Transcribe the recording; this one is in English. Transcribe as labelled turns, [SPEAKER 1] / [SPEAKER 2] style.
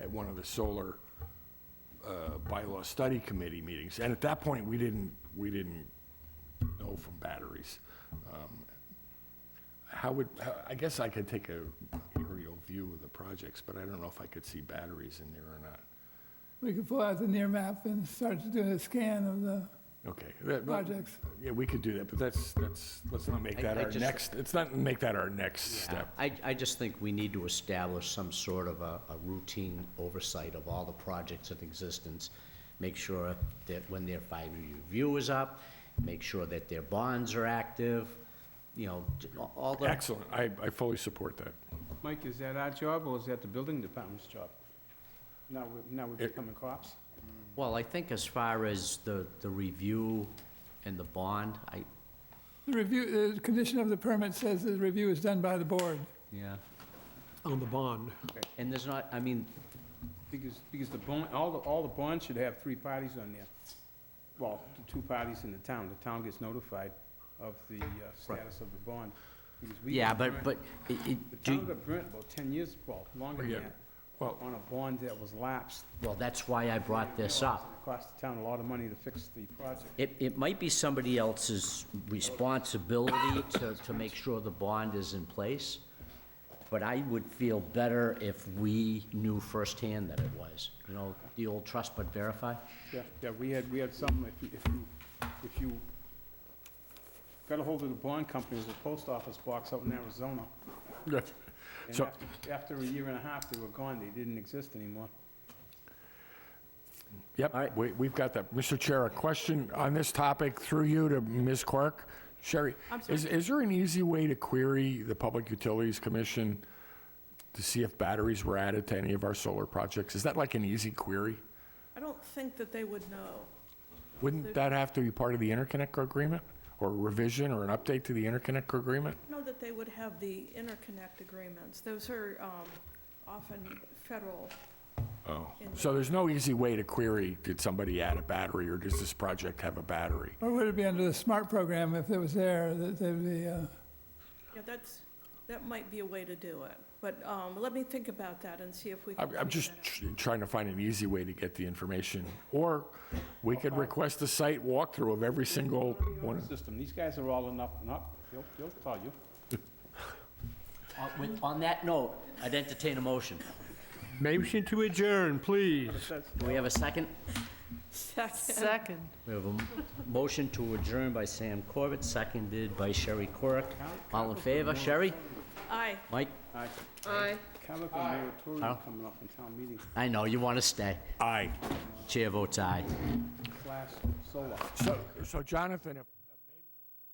[SPEAKER 1] one of the solar uh, bylaw study committee meetings. And at that point, we didn't, we didn't know from batteries. Um, How would, how- I guess I could take a aerial view of the projects, but I don't know if I could see batteries in there or not.
[SPEAKER 2] We could pull out the near map and start to do a scan of the,
[SPEAKER 1] Okay. that- but-
[SPEAKER 2] Projects.
[SPEAKER 1] Yeah, we could do that, but that's, that's, let's not make
[SPEAKER 3] I-
[SPEAKER 1] that
[SPEAKER 3] I
[SPEAKER 1] our
[SPEAKER 3] just-
[SPEAKER 1] next, let's not make that our next step.
[SPEAKER 3] I, I just think we need to establish some sort of a, a routine oversight of all the projects in existence. Make sure that when their five-year review is up, make sure that their bonds are active, you know, j- all the.
[SPEAKER 1] Excellent. I, I fully support that.
[SPEAKER 4] Mike, is that our job or is that the building department's job? Now, we- now we're
[SPEAKER 1] It-
[SPEAKER 4] becoming cops?
[SPEAKER 3] Well, I think as far as the, the review and the bond, I,
[SPEAKER 2] the review, the condition of the permit says the review is done by the board.
[SPEAKER 3] yeah,
[SPEAKER 5] on the bond.
[SPEAKER 3] and there's not, I mean,
[SPEAKER 4] Because, because the bond, all the, all the bonds should have three parties on there. Well, the two parties in the town. The town gets notified of the uh, status of the bond. because we
[SPEAKER 3] yeah,
[SPEAKER 4] got
[SPEAKER 3] but,
[SPEAKER 4] burnt-
[SPEAKER 3] but, it,
[SPEAKER 4] The
[SPEAKER 3] it,
[SPEAKER 4] town
[SPEAKER 3] do,
[SPEAKER 4] got burnt about ten years, well, longer
[SPEAKER 1] Yeah.
[SPEAKER 4] than that,
[SPEAKER 1] Well,
[SPEAKER 4] on a bond that was lapsed.
[SPEAKER 3] well, that's why I brought this up.
[SPEAKER 4] It Cost the town a lot of money to fix the project.
[SPEAKER 3] It, it might be somebody else's responsibility to, to make sure the bond is in place, but I would feel better if we knew firsthand that it was. You know, the old trust but verify?
[SPEAKER 4] Yeah, yeah, we had, we had some, if you, if you, if you got a hold of the bond company, it was a post office box out in Arizona.
[SPEAKER 1] that's-
[SPEAKER 4] And
[SPEAKER 1] So-
[SPEAKER 4] after- After a year and a half, they were gone, they didn't exist anymore.
[SPEAKER 3] All
[SPEAKER 1] Yep,
[SPEAKER 3] right.
[SPEAKER 1] we, we've got that. Mr. Chair, a question on this topic through you to Ms. Quirk. Sherry, is, is there an easy way to query the Public Utilities Commission to see if batteries were added to any of our solar projects? Is that like an easy query?
[SPEAKER 6] I don't think that they would know.
[SPEAKER 1] Wouldn't that have to be part of the interconnect agreement or revision or an update to the interconnect agreement?
[SPEAKER 6] I know that they would have the interconnect agreements. Those are um, often federal.
[SPEAKER 1] Oh.
[SPEAKER 6] in-
[SPEAKER 1] So there's no easy way to query, did somebody add a battery or does this project have a battery?
[SPEAKER 2] Or would it be under the SMART program if it was there, that there'd be, uh,
[SPEAKER 6] Yeah, that's, that might be a way to do it. But um, let me think about that and see if we can.
[SPEAKER 1] I'm, I'm
[SPEAKER 6] figure
[SPEAKER 1] just
[SPEAKER 6] that out.
[SPEAKER 1] tr- trying to find an easy way to get the information. Or we could request a site walkthrough of every single one.
[SPEAKER 4] System, these guys are all enough, and up, they'll, they'll tell you.
[SPEAKER 3] On, Uh, with- on that note, I'd entertain a motion.
[SPEAKER 5] Motion to adjourn, please.
[SPEAKER 3] Do we have a second?
[SPEAKER 7] Second.
[SPEAKER 3] We have a m- motion to adjourn by Sam Corbett, seconded by Sherry Quirk. All in favor? Sherry?
[SPEAKER 6] Aye.
[SPEAKER 3] Mike?
[SPEAKER 4] Aye.
[SPEAKER 7] Aye.
[SPEAKER 4] Chemical moratorium
[SPEAKER 3] Al?
[SPEAKER 4] coming up in town meeting,
[SPEAKER 3] I know, you want to stay.
[SPEAKER 1] Aye.
[SPEAKER 3] Chair votes aye.
[SPEAKER 4] slash solar.
[SPEAKER 1] So, so Jonathan, if